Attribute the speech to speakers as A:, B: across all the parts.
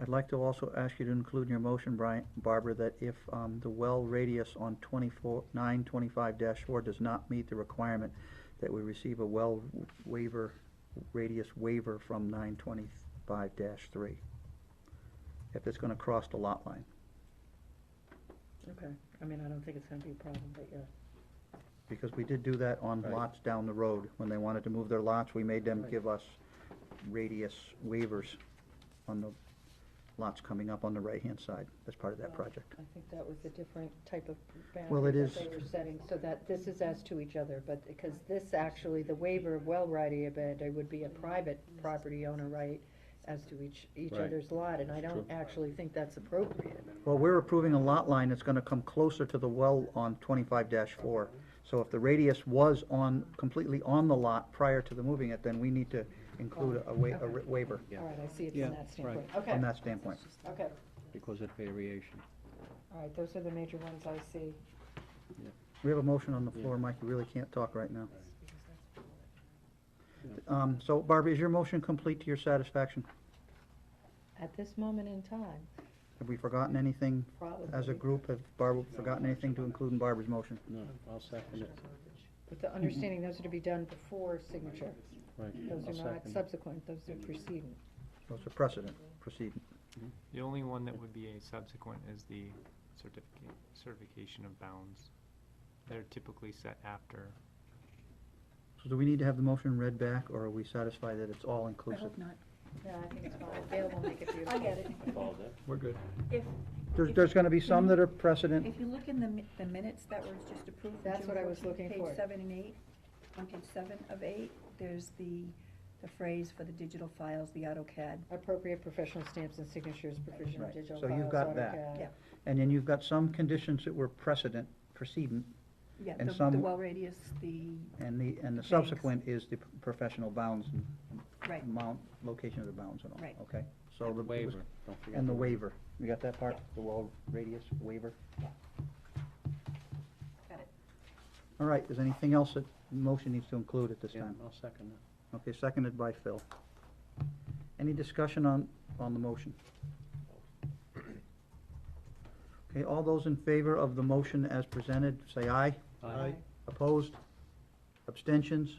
A: I'd like to also ask you to include in your motion, Brian, Barbara, that if, um, the well radius on twenty-four, nine twenty-five dash four does not meet the requirement, that we receive a well waiver, radius waiver from nine twenty-five dash three. If it's gonna cross the lot line.
B: Okay, I mean, I don't think it's gonna be a problem, but yeah,
A: Because we did do that on
C: Right.
A: lots down the road. When they wanted to move their lots, we made them
B: Right.
A: give us radius waivers on the lots coming up on the right-hand side as part of that
B: Wow.
A: project.
B: I think that was a different type of
A: Well, it
B: boundary that
A: is-
B: they were setting, so that this is as to each other, but, because this actually, the waiver of well right of it, it would be a private property owner right as to each, each
C: Right.
B: other's lot, and I
C: That's
B: don't
C: true.
B: actually think that's appropriate.
A: Well, we're approving a lot line that's gonna come closer to the well on twenty-five four. So if the radius was on, completely on the lot prior to the moving it, then we need to include a wa- a
B: Okay.
A: waiver
C: Yeah.
B: All right, I see it
D: Yeah,
B: from that
D: right.
B: standpoint, okay,
A: from that standpoint.
B: okay,
D: because of variation.
B: all right, those are the major ones I see.
A: We have a motion on the floor, Mike, you really can't talk right now.
D: Yeah.
A: Um, so Barbie, is your motion complete to your satisfaction?
B: At this moment in time,
A: Have we forgotten anything
B: probably.
A: as a group? Have Barbara forgotten anything to include in Barbara's motion?
D: No, I'll second it,
B: With the understanding those are to be done before signature.
D: right.
B: Those
D: I'll
B: are not
D: second it.
B: subsequent, those are preceding.
A: Well, It's a precedent, proceed.
E: The only one that would be a subsequent is the certificate, certification of bounds. They're typically set after.
A: So do we need to have the motion read back, or are we satisfied that it's all inclusive?
F: not.
B: No, I think it's fine, Gail will make it beautiful.
F: I get it.
A: We're good.
F: If,
A: There's, there's gonna be some that are precedent,
F: if you look in the, mi- the minutes that were just approved. on
B: That's
F: June
B: what I was
F: 14,
B: looking for.
F: Page seven and eight, on page seven of eight, there's the, the phrase for the digital files, the AutoCAD.
B: Appropriate professional stamps and signatures, provision of
A: Right,
B: digital
A: so
B: files.
A: you've got that.
B: AutoCAD.
F: Yeah.
A: and then you've got some conditions that were precedent, precedent,
F: Yeah,
A: And
F: the, the
A: some-
F: well radius, the,
A: and the, and the
F: Thanks.
A: subsequent is the professional bounds and
F: right,
A: amount, location of the bounds and all,
F: Right.
A: okay? So
D: And
A: the.
D: the waiver, don't forget.
A: And the waiver, you got that part, the wall radius waiver?
F: got it.
A: All right, is anything else that the motion needs to include at this
D: Yeah,
A: time?
D: I'll second it.
A: Okay, seconded by Phil. Any discussion on, on the motion? Okay, all those in favor of the motion as presented, say aye.
D: Aye.
A: Opposed? Abstentions?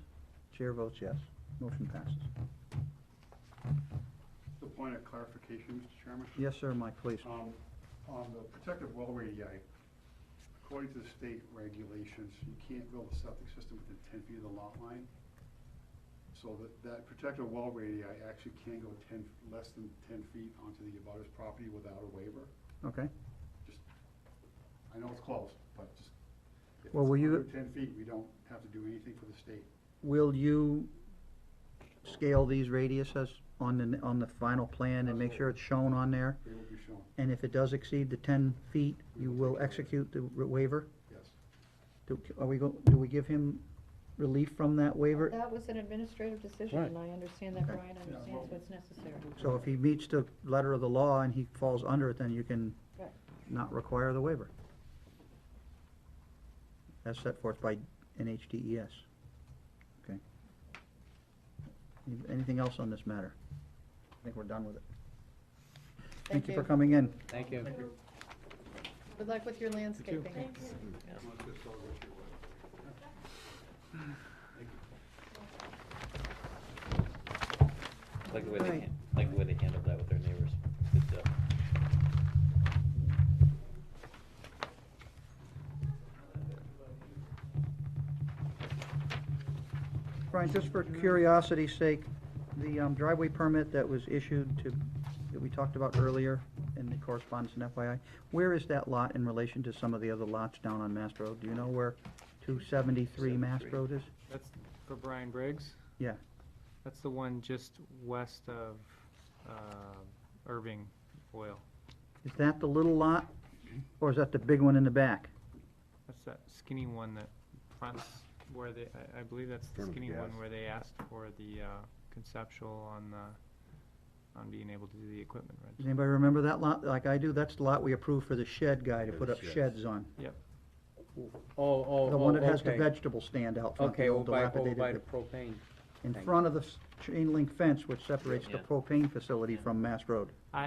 A: Chair votes yes. Motion passes.
G: The point of clarification, Mr. Chairman?
A: Yes, sir, Mike, please.
G: Um, on the protective well radii, according to the state regulations, you can't build a septic system within ten feet of the lot line. So that, that protective well radii actually can go ten, less than ten feet onto the abutter's property without a waiver.
A: Okay.
G: Just, I know it's close, but just, if it's
A: Well, will you-
G: under ten feet, we don't have to do anything for the state.
A: Will you scale these radiuses on the, on the final plan and make sure it's shown on there?
G: They will be shown,
A: And if it does exceed the ten feet, you will execute the waiver?
G: yes.
A: Do, are we go, do we give him relief from that waiver?
B: That was an administrative decision,
D: Right.
B: and I understand that
A: Okay.
B: Brian understands what's necessary.
A: So if he meets the letter of the law and he falls under it, then you can
B: Right.
A: not require the waiver. As set forth by NHDES. E Okay. Any- Anything else on this matter? I think we're done with it. Thank you for coming in.
D: Thank you.
B: Good luck with your landscaping.
G: Let's just go with your way.
H: Like the way they,
A: Right.
H: han- like the way they handled that with their neighbors. Good stuff.
A: Brian, just for curiosity's sake, the um, driveway permit that was issued to, that we talked about earlier in the correspondence and FYI, where is that lot in relation to some of the other lots down on Mass Road? Do you know where two seventy-three Mass
H: 273.
A: Road is?
E: That's for Brian Briggs.
A: Yeah.
E: That's the one just west of uh, Irving Oil.
A: Is that the little lot, or is that the big one in the back?
E: That's that skinny one that fronts where they, I, I believe that's the
C: Front of
E: skinny one
C: gas.
E: where they asked for the uh, conceptual on the, on being able to do the equipment rental.
A: Does anybody remember that lot? Like I do, that's the lot we approved for the shed guy to
C: Yeah,
A: put
C: the
A: up
C: sheds.
A: sheds on.
D: Oh, oh,
A: The one that has the vegetable stand out front, the
D: Okay, over
A: old
D: by, over
A: dilapidated.
D: by the propane.
A: In
D: thing.
A: front of the s- chain link fence which separates the
H: Yeah.
A: propane facility from Mass Road.